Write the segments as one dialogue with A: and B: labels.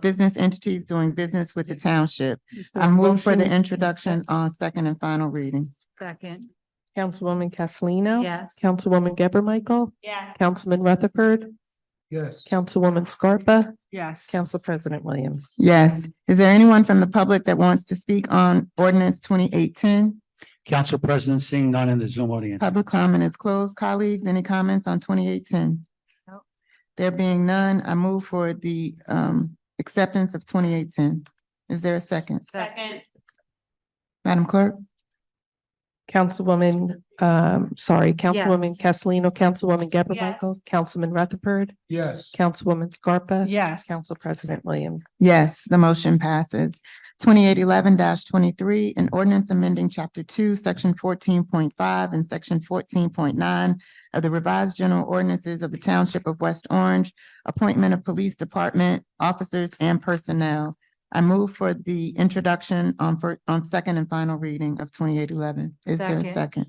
A: business entities doing business with the township.
B: Is there
A: I
B: a
A: move for the
B: motion?
A: introduction on second and final reading.
B: Second,
C: Councilwoman Castellino.
B: yes.
C: Councilwoman Geber Michael.
B: Yes.
C: Councilman Rutherford.
D: Yes.
C: Councilwoman Scarpa.
B: Yes.
C: Council President Williams.
A: Yes. Is there anyone from the public that wants to speak on ordinance twenty eighteen?
D: Council President, seeing none in the Zoom audience.
A: Public comment is closed. Colleagues, any comments on twenty eighteen?
B: No.
A: There being none, I move for the um acceptance of twenty eighteen. Is there a second?
B: Second,
A: Madam Clerk?
C: Councilwoman, um, sorry, Councilwoman Castellino, Councilwoman Geber
B: Yes.
C: Michael, Councilman Rutherford,
D: Yes.
C: Councilwoman Scarpa.
B: yes.
C: Council President Williams.
A: Yes, the motion passes. Twenty-eight eleven twenty-three, an ordinance amending chapter two, section fourteen point five and section fourteen point nine of the revised general ordinances of the Township of West Orange, appointment of police department officers and personnel. I move for the introduction on fir- on second and final reading of twenty-eight eleven. Is there a
B: Second.
A: second?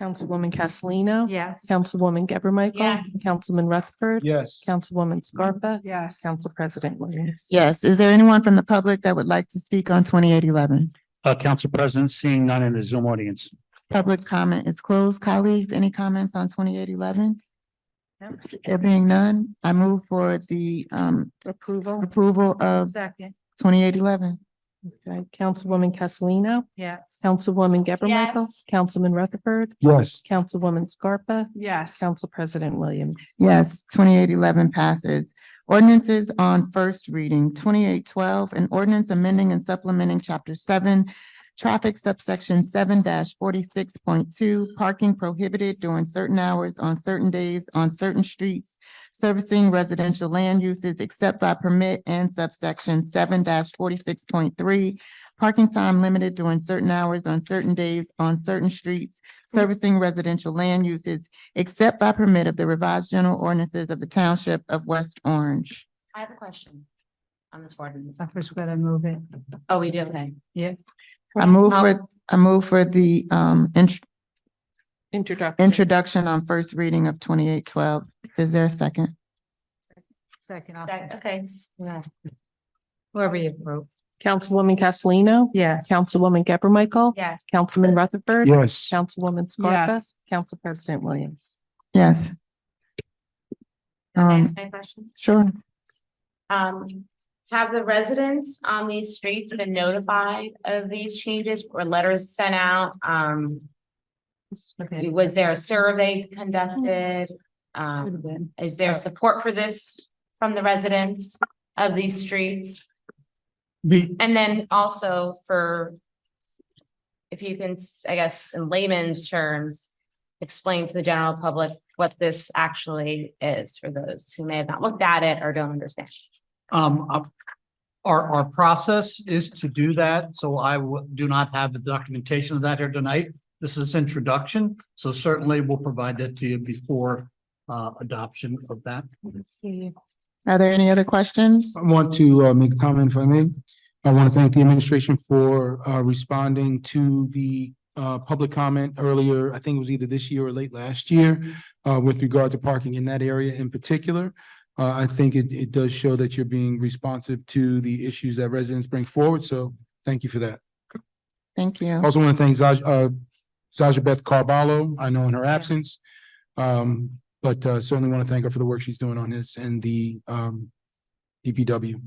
C: Councilwoman Castellino.
B: Yes.
C: Councilwoman Geber Michael.
B: Yes.
C: Councilman Rutherford.
D: Yes.
C: Councilwoman Scarpa.
B: Yes.
C: Council President Williams.
A: Yes, is there anyone from the public that would like to speak on twenty-eight eleven?
D: Uh, Council President, seeing none in the Zoom audience.
A: Public comment is closed. Colleagues, any comments on twenty-eight eleven?
B: Nope.
A: There being none, I move for the um
B: Approval.
A: approval of
B: Second,
A: twenty-eight eleven.
C: Okay, Councilwoman Castellino.
B: yes.
C: Councilwoman Geber Michael.
B: Yes.
C: Councilman Rutherford.
D: Yes.
C: Councilwoman Scarpa.
B: Yes.
C: Council President Williams.
A: Yes, twenty-eight eleven passes. Ordinances on first reading, twenty-eight twelve, an ordinance amending and supplementing chapter seven, traffic subsection seven forty-six point two, parking prohibited during certain hours on certain days on certain streets, servicing residential land uses except by permit and subsection seven forty-six point three, parking time limited during certain hours on certain days on certain streets, servicing residential land uses except by permit of the revised general ordinances of the Township of West Orange.
E: I have a question on this ordinance.
B: I first gotta move it.
E: Oh, we do, okay.
B: Yeah.
A: I move for, I move for the um int-
C: Introduction.
A: introduction on first reading of twenty-eight twelve. Is there a second?
B: Second, I'll-
E: Sec- Okay.
B: Yeah. whoever you vote.
C: Councilwoman Castellino.
B: Yes.
C: Councilwoman Geber Michael.
E: Yes.
C: Councilman Rutherford.
D: Yes.
C: Councilwoman Scarpa.
B: Yes.
C: Council President Williams.
A: Yes,
E: Can I
A: Um,
E: ask my question?
A: sure.
E: Um, have the residents on these streets been notified of these changes or letters sent out? Um,
B: Okay.
E: was there a survey conducted? Um,
B: Should've been.
E: is there support for this from the residents of these streets?
D: The,
E: And then also for, if you can, I guess, in layman's terms, explain to the general public what this actually is for those who may have not looked at it or don't understand.
F: Um, uh, our, our process is to do that, so I w- do not have the documentation of that here tonight. This is introduction, so certainly we'll provide that to you before, uh, adoption of that.
A: Are there any other questions?
G: I want to uh, make a comment if I may. I want to thank the administration for uh, responding to the uh, public comment earlier. I think it was either this year or late last year uh, with regard to parking in that area in particular. Uh, I think it, it does show that you're being responsive to the issues that residents bring forward. So thank you for that.
A: Thank you.
G: Also want to thank Zaj, uh, Zaja Beth Carballo, I know in her absence. Um, but uh, certainly want to thank her for the work she's doing on this and the, um, DPW.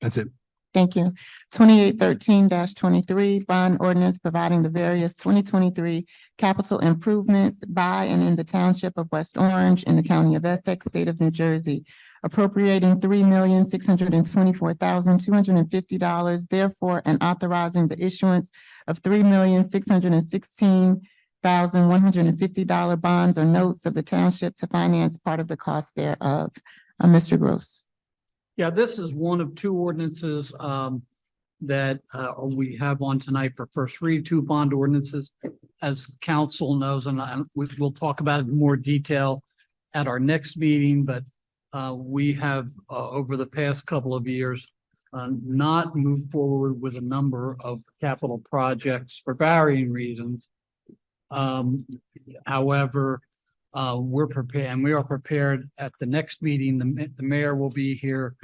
G: That's it.
A: Thank you. Twenty-eight thirteen twenty-three, bond ordinance providing the various twenty twenty-three capital improvements by and in the township of West Orange in the county of Essex, state of New Jersey, appropriating three million, six hundred and twenty-four thousand, two hundred and fifty dollars, therefore, and authorizing the issuance of three million, six hundred and sixteen thousand, one hundred and fifty dollar bonds or notes of the township to finance part of the cost thereof. Uh, Mr. Gross.
F: Yeah, this is one of two ordinances um that uh we have on tonight for first read, two bond ordinances. As council knows, and I, we will talk about it in more detail at our next meeting, but uh we have uh over the past couple of years uh not moved forward with a number of capital projects for varying reasons. Um, however, uh, we're prepared, and we are prepared at the next meeting. The, ma- the mayor will be here